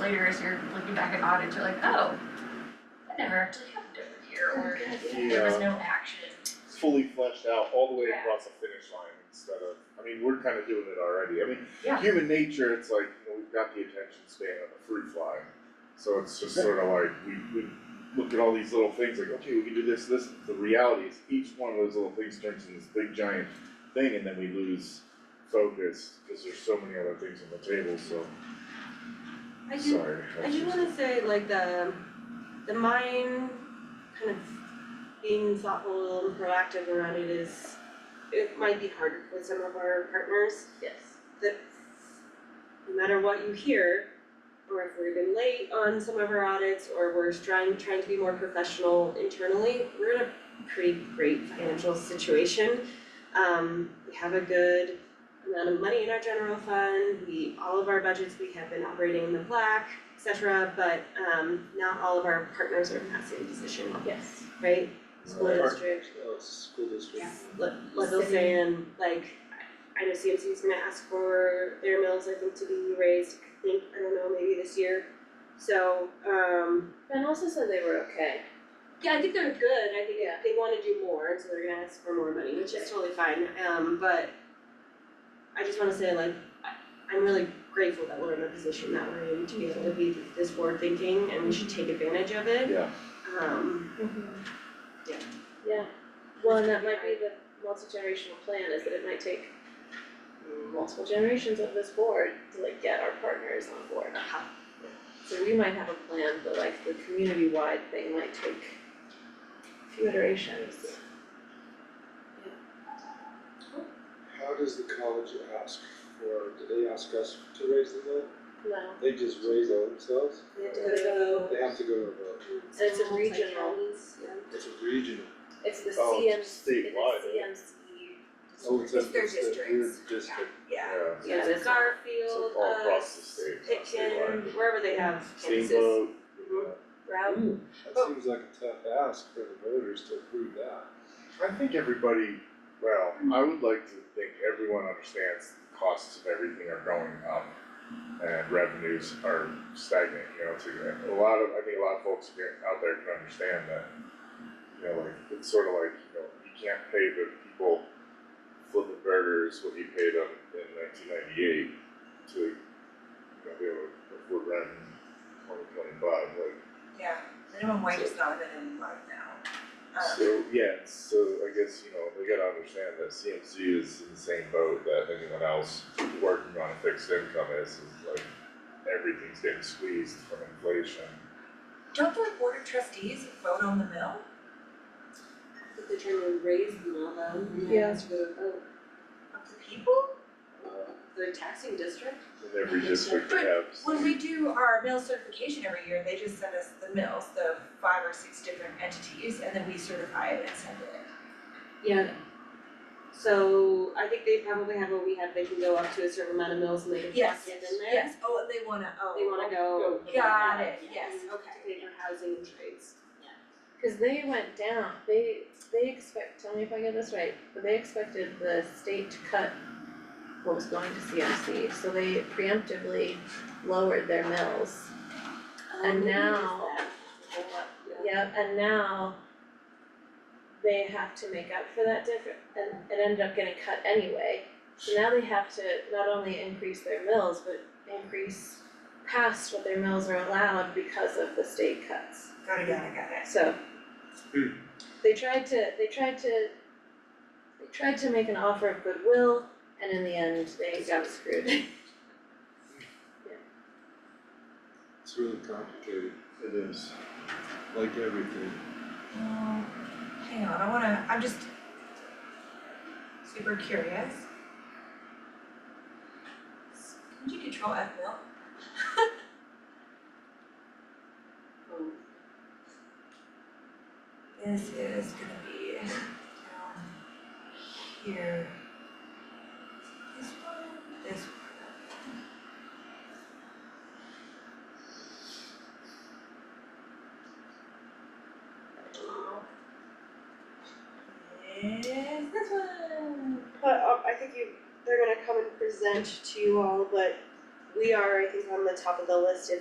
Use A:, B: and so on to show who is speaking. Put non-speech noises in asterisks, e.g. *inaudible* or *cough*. A: later, as you're looking back at audits, you're like, oh, that never actually happened over here, or there was no action.
B: fully fleshed out all the way
A: Yeah.
B: across the finish line instead of, I mean, we're kind of doing it already. I mean,
A: Yeah.
B: human nature, it's like, you know, we've got the attention span of a fruit fly. So it's just sort of like, we, we look at all these little things like, okay, we can do this, this, the reality is each one of those little things turns into this big giant thing and then we lose focus because there's so many other things on the table, so,
C: I do,
B: sorry.
C: I do wanna say like the, the mine kind of being thoughtful and proactive around it is, it might be hard with some of our partners
A: Yes.
C: that no matter what you hear, or if we're even late on some of our audits, or we're trying, trying to be more professional internally, we're in a pretty great financial situation. Um, we have a good amount of money in our general fund, we, all of our budgets, we have been operating in the black, et cetera, but, um, not all of our partners are in that same position,
A: Yes.
C: right? School
D: Right.
C: district,
D: Oh, it's school district.
A: Yeah.
C: Le- Leadville
A: City.
C: saying, like, I know CMC is gonna ask for their mills, I think, to be raised, I think, I don't know, maybe this year. So, um, Ben also said they were okay. Yeah, I think they're good, I think
E: Yeah.
C: they wanna do more, and so they're gonna ask for more money, which is totally fine, um, but I just wanna say, like, I, I'm really grateful that we're in a position that we're in to be able to be this forward thinking, and we should take advantage of it,
B: Yeah,
C: um, Mm-hmm. Yeah.
E: Yeah, well, and that might be the multi-generational plan, is that it might take multiple generations of this board to like get our partners on board.
C: Uh-huh.
E: So we might have a plan, but like the community-wide thing might take a few iterations.
D: How does the college ask for, do they ask us to raise the vote?
E: No,
D: They just raise it themselves?
C: we have to go to
D: They have to go to a vote.
E: And it's a regional.
C: yeah.
D: It's a regional.
E: it's the
B: Oh,
E: CMC, it's the
B: statewide, eh?
E: CMC.
D: Oh, it's a,
A: It's their
D: it's a weird
A: districts.
D: district.
C: Yeah.
B: yeah,
E: Yeah,
C: Yeah,
E: that's-
B: so
C: Garfield,
B: all across the
C: uh,
B: state, not statewide.
C: Pitkin, wherever they have campuses.
B: Steamboat,
C: Mhm.
B: uh,
C: Route.
D: That seems like a tough ask for the voters to approve that.
B: I think everybody, well, I would like to think everyone understands the costs of everything are going up and revenues are stagnant, you know, to, a lot of, I think a lot of folks here- out there can understand that. You know, like, it's sort of like, you know, you can't pay the people flipping burgers what you paid them in nineteen ninety-eight to, you know, be able to afford rent in twenty twenty-five, like,
F: Yeah, minimum wage is not even in line now. Um,
B: So, yeah, so I guess, you know, we gotta understand that CMC is in the same boat that anyone else working on a fixed income is, is like, everything's getting squeezed from inflation.
F: Don't the board of trustees vote on the mill?
C: But they're trying to raise them all though, and then
E: Yeah.
C: ask for the vote.
F: Of the people?
B: Uh,
C: The taxing district?
B: In every district they have.
F: When we do our mill certification every year, they just send us the mills, the five or six different entities, and then we certify it and send it.
C: Yeah. So I think they probably have what we have, they can go up to a certain amount of mills and they can
F: Yes,
C: plus it in there.
F: yes, oh, and they wanna, oh.
C: They wanna go.
F: Got it, yes,
C: To
F: okay.
C: pay for housing and trades.
E: Cause they went down, they, they expect, tell me if I get this right, but they expected the state to cut what was going to CMC, so they preemptively lowered their mills.
C: Um,
E: And now- Yep, and now they have to make up for that difference, and it ended up getting cut anyway. So now they have to not only increase their mills, but increase past what their mills are allowed because of the state cuts.
F: Got it, got it, got it.
E: So.
D: Hmm.
E: They tried to, they tried to, they tried to make an offer of goodwill, and in the end, they got screwed. *laughs*
D: It's really complicated,
B: It is.
D: like everything.
F: Um, hang on, I wanna, I'm just super curious. Can you control F mill?
C: Um,
F: *laughs* This is gonna be down here. This one, this one. Is this one?
C: But um, I think you, they're gonna come and present to you all, but we are, I think, on the top of the list if